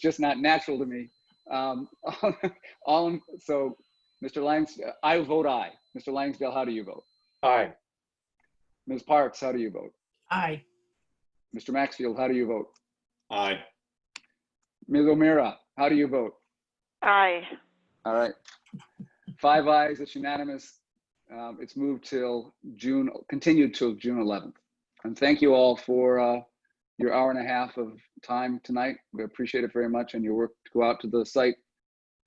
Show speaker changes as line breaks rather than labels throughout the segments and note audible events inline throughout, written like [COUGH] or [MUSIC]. just not natural to me. Um, [LAUGHS] all, in- so, Mr. Langs, I vote aye. Mr. Langsdale, how do you vote?
Aye.
Ms. Parks, how do you vote?
Aye.
Mr. Maxfield, how do you vote?
Aye.
Ms. O'Meara, how do you vote?
Aye.
All right. Five ayes, it's unanimous. Um, It's moved till June, continued till June 11th. And thank you all for uh, your hour and a half of time tonight. We appreciate it very much and your work to go out to the site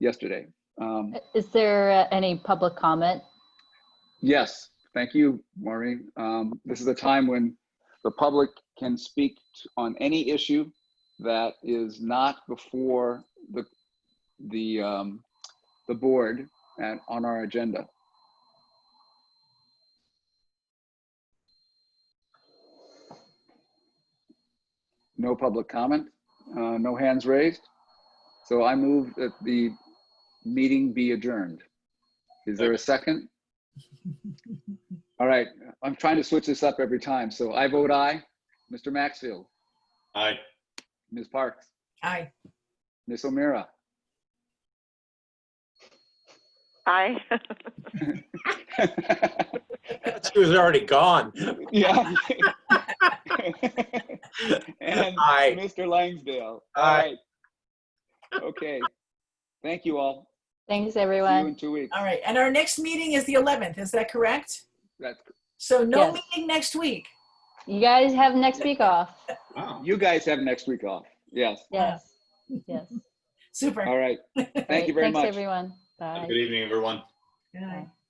yesterday. Um,
Is there uh, any public comment?
Yes, thank you, Maureen. Um, This is a time when the public can speak t- on any issue that is not before the, the, um, the board and on our agenda. No public comment, uh, no hands raised. So I move that the meeting be adjourned. Is there a second? All right, I'm trying to switch this up every time, so I vote aye. Mr. Maxfield,
Aye.
Ms. Parks,
Aye.
Ms.
[LAUGHS]
O'Meara,
Aye.
She was already gone.
Yeah. [LAUGHS] And
Aye.
Mr. Langsdale. All
Aye.
right. Okay. Thank you all.
Thanks,
See you
everyone.
in two weeks.
All right. And our next meeting is the 11th. Is that correct?
That's,
So no
Yes.
meeting next week.
You guys have next week off.
Wow.
you guys have next week off. Yes.
Yes, yes.
Super.
[LAUGHS]
All right. Thank you
Great.
very
Thanks,
much.
everyone. Bye.
Good evening, everyone.
Good night.